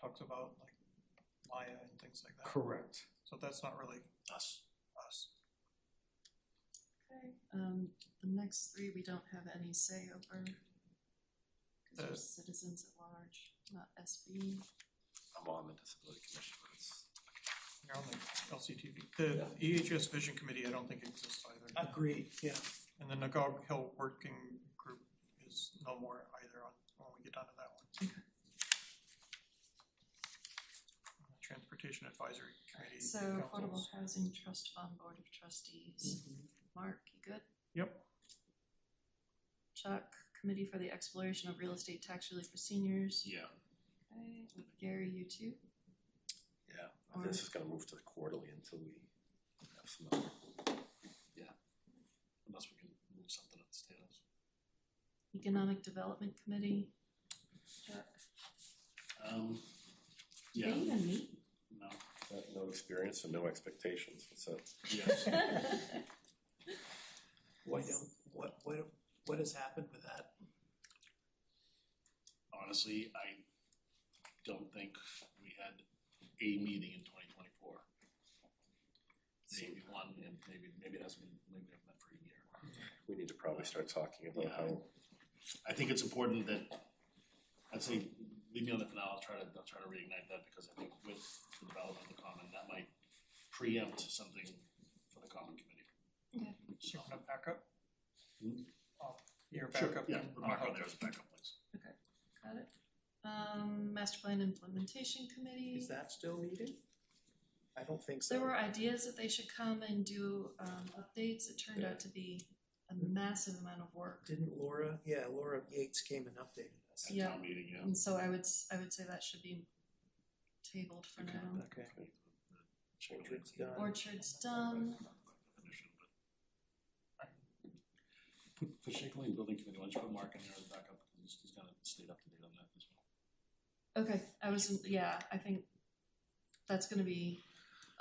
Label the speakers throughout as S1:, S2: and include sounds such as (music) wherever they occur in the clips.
S1: talks about like Maya and things like that.
S2: Correct.
S1: So that's not really
S3: us.
S1: us.
S4: Okay, um, the next three, we don't have any say over. Cause
S1: Uh,
S4: we're citizens at large, not SB.
S3: I'm on the disability commission, but it's.
S1: You're on the LCTV. The EHS Vision Committee, I don't think exists either.
S3: Uh,
S5: Agreed, yeah.
S1: And the Nagog Hill Working Group is no more either on, when we get down to that one. Transportation Advisory Committee.
S4: So Affordable
S1: councils.
S4: Housing Trust Fund Board of Trustees, Mark, you good?
S1: Mm-hmm. Yep.
S4: Chuck, Committee for the Exploration of Real Estate Tax Relief for Seniors,
S3: Yeah.
S4: okay, with Gary, you too?
S3: Yeah, I think this is gonna move to the quarterly until we have some other. Yeah. Unless we can move something up the tables.
S4: Economic Development Committee, Chuck,
S3: Um,
S4: they
S3: yeah,
S4: even meet?
S5: (laughs)
S3: no,
S6: Uh, No experience and no expectations, what's that?
S3: yes,
S5: What, what, what, what has happened with that?
S3: honestly, I don't think we had a meeting in twenty twenty-four. Maybe one, and maybe, maybe it hasn't been, maybe we haven't met for a year.
S6: We need to probably start talking about
S3: Yeah.
S6: how,
S3: I think it's important that, I'd say, leave me on that for now, I'll try to, I'll try to reignite that, because I think with the development of the common, that might preempt something for the common committee.
S4: Okay.
S1: So you want a backup?
S3: Hmm?
S1: Oh, Your backup.
S3: Yeah,
S1: and-
S3: we'll mark on there as a backup, please.
S4: Got it. Um, Master Plan Implementation Committee.
S5: Is that still needed? I don't think so.
S4: There were ideas that they should come and do um updates, it turned out to be a massive amount of work.
S5: Didn't Laura, yeah, Laura Yates came and updated us.
S3: At
S4: Yeah.
S3: town meeting, yeah.
S4: And so I would, s- I would say that should be tabled for now.
S5: Okay.
S3: Check it
S5: Orchard's
S3: out.
S5: done.
S4: Orchard's done,
S3: Definition, but- Alright. Put, put Shaker Lane Building Committee, why don't you put Mark in there as a backup, because he's, he's gonna stay up to date on that as well.
S4: okay, I was, yeah, I think that's gonna be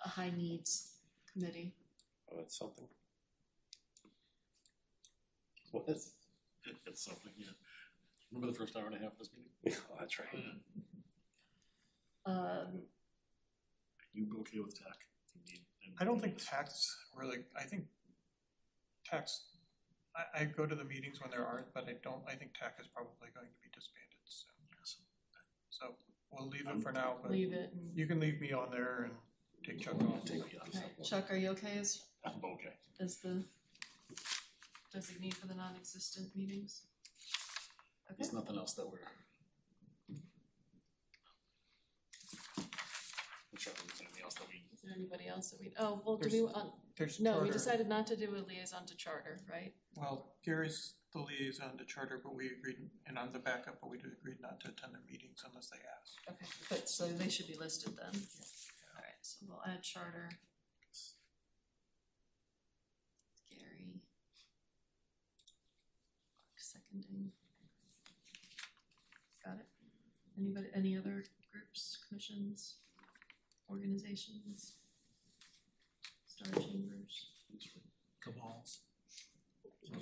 S4: a high needs committee.
S6: oh, that's something. (laughs)
S3: What is? (laughs) It's something, yeah. Remember the first hour and a half of this meeting?
S6: Yeah, that's right.
S4: Um,
S3: You okay with tech? Indeed. And-
S1: I don't think tax really, I think tax, I, I go to the meetings when there aren't, but I don't, I think tax is probably going to be disbanded soon. So we'll leave it for now, but
S4: leave it and,
S1: you can leave me on there and take Chuck
S3: I'll
S1: off.
S3: take the others.
S4: alright, Chuck, are you okay as,
S3: I'm okay.
S4: as the designee for the non-existent meetings? Okay.
S3: There's nothing else that we're. I'm sure there's anything else that we,
S4: Is there anybody else that we, oh, well, do
S1: There's-
S4: we, uh,
S1: There's
S4: no, we
S1: charter.
S4: decided not to do a liaison to charter, right?
S1: Well, Gary's the liaison to charter, but we agreed, and I'm the backup, but we did agreed not to attend their meetings unless they ask.
S4: Okay, but, so they should be listed then. Alright, so we'll add charter. Gary. Clark Seconding. Got it? Anybody, any other groups, commissions, organizations? Star chambers?
S5: Cabals.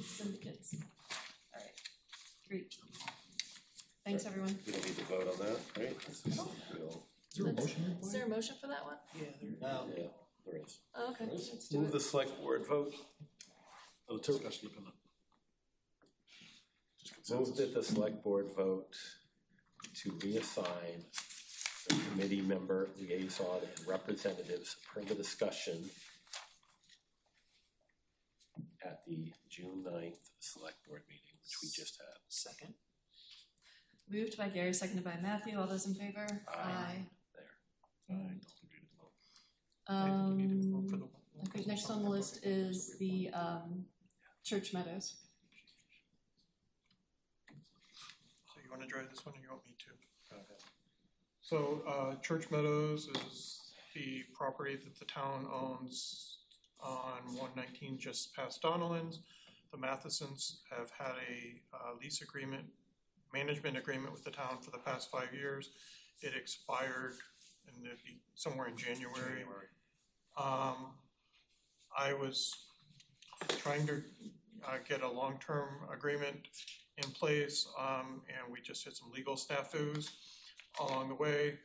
S4: Syndicates. Alright, great. Thanks, everyone.
S6: We don't need to vote on that, right? This is- we'll-
S2: Is there a motion
S4: Is there a motion for that one?
S5: Yeah, there,
S6: Yeah, there is.
S4: Oh, Okay, let's do
S6: Move
S4: it.
S6: the select board vote.
S3: oh, the discussion you can. Just
S6: Move that
S3: consensus.
S6: the select board vote to reassign the committee member, liaison, and representatives per the discussion at the June 9th select board meeting, which we just had.
S5: second.
S4: Moved by Gary, seconded by Matthew. All those in favor?
S6: Aye. There.
S3: I don't agree with the vote.
S1: I think we need to vote for
S4: Um,
S1: the-
S4: I think next on the list is the, um, Church Meadows.
S1: So you wanna drive this one or you want me to? So, uh, Church Meadows is the property that the town owns on one nineteen just past Donalds. The Mathesons have had a, uh, lease agreement, management agreement with the town for the past five years. It expired and it'd be somewhere in January. Um, I was trying to, uh, get a long-term agreement in place, um, and we just hit some legal snafus along the way.